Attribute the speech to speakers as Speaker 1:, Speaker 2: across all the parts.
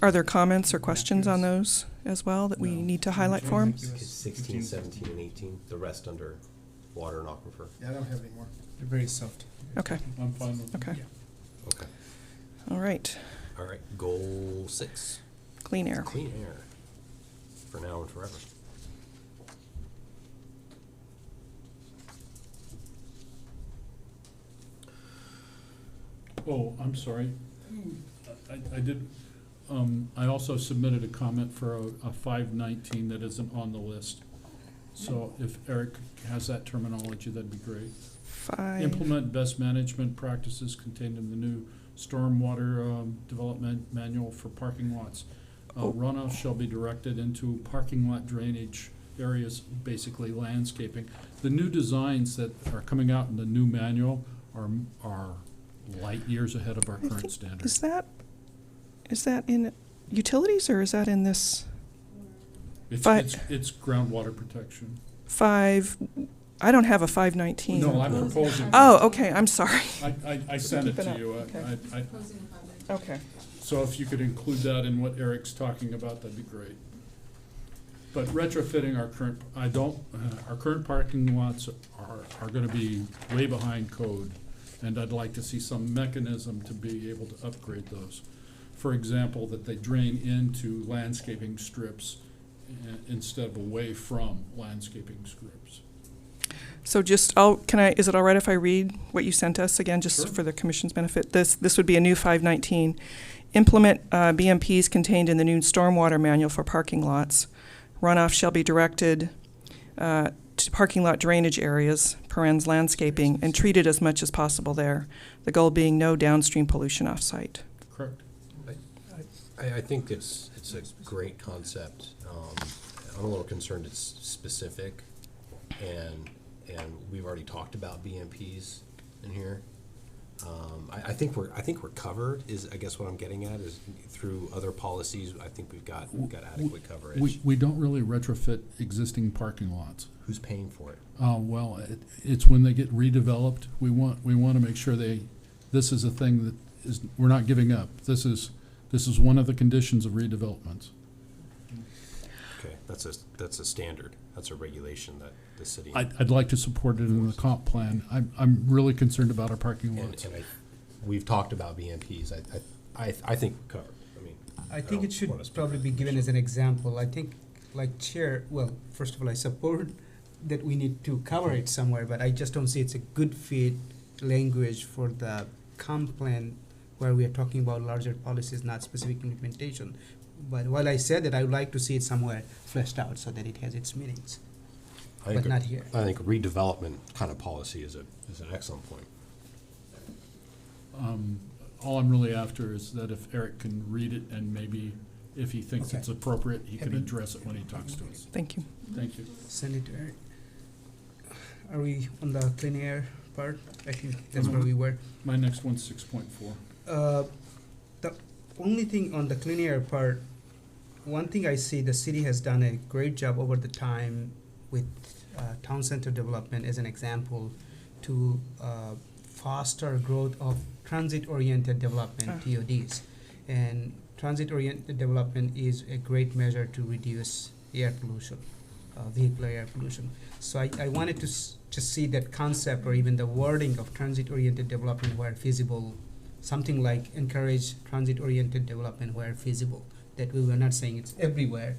Speaker 1: Are there comments or questions on those as well that we
Speaker 2: No.
Speaker 1: need to highlight for them?
Speaker 2: Yes.
Speaker 3: It's 16,
Speaker 2: 15,
Speaker 3: 17, and 18, the rest under water and aquifer.
Speaker 4: Yeah, I don't have any more.
Speaker 2: They're very soft.
Speaker 1: Okay,
Speaker 2: I'm fine with
Speaker 1: Okay.
Speaker 2: Yeah.
Speaker 3: Okay.
Speaker 1: all right,
Speaker 3: All right, goal six,
Speaker 1: clean air.
Speaker 3: clean air, for now and forever.
Speaker 5: Oh, I'm sorry. I, I did, um, I also submitted a comment for a, a five nineteen that isn't on the list. So if Eric has that terminology, that'd be great.
Speaker 1: Five,
Speaker 5: Implement best management practices contained in the new stormwater, um, development manual for parking lots. Uh,
Speaker 1: Oh.
Speaker 5: runoff shall be directed into parking lot drainage areas, basically landscaping. The new designs that are coming out in the new manual are, are light years ahead of our
Speaker 1: I
Speaker 5: current
Speaker 1: think-
Speaker 5: standards.
Speaker 1: is that, is that in utilities or is that in this
Speaker 5: It's,
Speaker 1: Fi-
Speaker 5: it's, it's groundwater protection.
Speaker 1: five? I don't have a five nineteen.
Speaker 5: No, I'm proposing.
Speaker 1: Oh, okay, I'm sorry.
Speaker 5: I, I, I sent it
Speaker 1: Keep it
Speaker 5: to
Speaker 1: up,
Speaker 5: you. I-
Speaker 1: okay.
Speaker 5: I, I,
Speaker 1: Okay.
Speaker 5: so if you could include that in what Eric's talking about, that'd be great. But retrofitting our current, I don't, uh, our current parking lots are, are gonna be way behind code. And I'd like to see some mechanism to be able to upgrade those. For example, that they drain into landscaping strips uh, instead of away from landscaping strips.
Speaker 1: So just, I'll, can I, is it all right if I read what you sent us again,
Speaker 5: Sure.
Speaker 1: just for the commission's benefit? This, this would be a new 519. Implement uh, BMPs contained in the new stormwater manual for parking lots. Runoff shall be directed uh, to parking lot drainage areas, parens landscaping, and treated as much as possible there. The goal being no downstream pollution off-site.
Speaker 5: Correct?
Speaker 3: I, I think it's, it's a great concept. Um, I'm a little concerned it's specific, and, and we've already talked about BMPs in here. Um, I, I think we're, I think we're covered, is, I guess what I'm getting at, is through other policies, I think we've got, we've got
Speaker 5: We,
Speaker 3: adequate coverage.
Speaker 5: we don't really retrofit existing parking lots.
Speaker 3: Who's paying for it?
Speaker 5: Uh, well, it, it's when they get redeveloped, we want, we want to make sure they, this is a thing that is, we're not giving up. This is, this is one of the conditions of redevelopments.
Speaker 3: Okay, that's a, that's a standard, that's a regulation that the city.
Speaker 5: I'd, I'd like to support it in the comp plan. I'm, I'm really concerned about our parking
Speaker 3: And,
Speaker 5: lots.
Speaker 3: and I, we've talked about BMPs, I, I, I, I think we're covered, I mean.
Speaker 6: I think
Speaker 3: don't
Speaker 6: it should
Speaker 3: wanna speak for
Speaker 6: probably
Speaker 3: the
Speaker 6: be given
Speaker 3: commission.
Speaker 6: as an example. I think, like chair, well, first of all, I support that we need to cover it somewhere, but I just don't see it's a good fit language for the comp plan where we are talking about larger policies, not specific implementation. But while I said that, I would like to see it somewhere fleshed out so that it has its meanings.
Speaker 3: I think
Speaker 6: but
Speaker 3: a-
Speaker 6: not here.
Speaker 3: I think redevelopment kind of policy is a, is an excellent point.
Speaker 5: Um, All I'm really after is that if Eric can read it and maybe if he thinks
Speaker 6: Okay.
Speaker 5: it's appropriate, he can
Speaker 6: Happy- Mm-hmm.
Speaker 5: address it when he talks to us.
Speaker 1: Thank you.
Speaker 5: Thank you.
Speaker 6: Send it to Eric. Are we on the clean air part? I think that's where we were.
Speaker 5: My next one's six point four.
Speaker 6: Uh, the only thing on the clean air part, one thing I see the city has done a great job over the time with uh, town center development as an example to uh, foster growth of transit oriented development,
Speaker 1: Ah.
Speaker 6: TODs. And transit oriented development is a great measure to reduce air pollution, uh, vehicular air pollution. So I, I wanted to s- just see that concept or even the wording of transit oriented development where feasible something like encourage transit-oriented development where feasible. That we were not saying it's everywhere.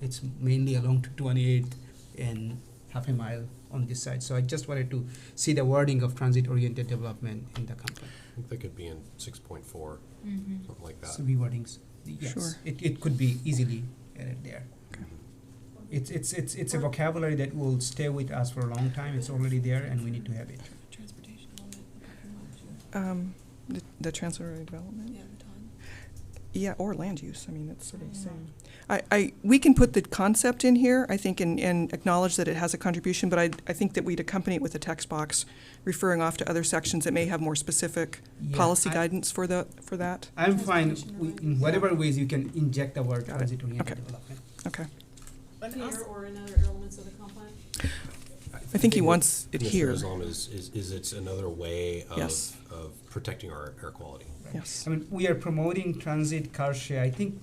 Speaker 6: It's mainly along to 28th and half a mile on this side. So I just wanted to see the wording of transit-oriented development in the company.
Speaker 3: I think that could be in six point four, something like that.
Speaker 6: So rewordings, yes,
Speaker 1: Sure.
Speaker 6: it, it could be easily added there.
Speaker 3: Mm-hmm.
Speaker 1: Okay.
Speaker 6: It's, it's, it's, it's a vocabulary that will stay with us for a long time. It's already there and we need to have it.
Speaker 7: Transportation element, the parking lot,
Speaker 1: Um, The the transfer development?
Speaker 7: yeah, the time.
Speaker 1: Yeah, or land use, I mean, it's sort of the
Speaker 7: Yeah.
Speaker 1: same. I, I, we can put the concept in here, I think, and, and acknowledge that it has a contribution, but I, I think that we'd accompany it with a text box referring off to other sections that may have more specific
Speaker 6: Yeah,
Speaker 1: policy
Speaker 6: I-
Speaker 1: guidance for the, for that.
Speaker 6: I'm fine,
Speaker 7: Transportation
Speaker 6: we, in
Speaker 7: related.
Speaker 6: whatever ways you can inject the word
Speaker 1: Got it.
Speaker 6: transit-oriented
Speaker 1: Okay.
Speaker 6: development.
Speaker 1: Okay.
Speaker 7: Here or in other elements of the comp plan?
Speaker 1: I think he wants it
Speaker 3: Mr.
Speaker 1: here.
Speaker 3: Islam is, is, is it's another way of,
Speaker 1: Yes.
Speaker 3: of protecting our air quality.
Speaker 6: Right.
Speaker 1: yes.
Speaker 6: I mean, we are promoting transit car share. I think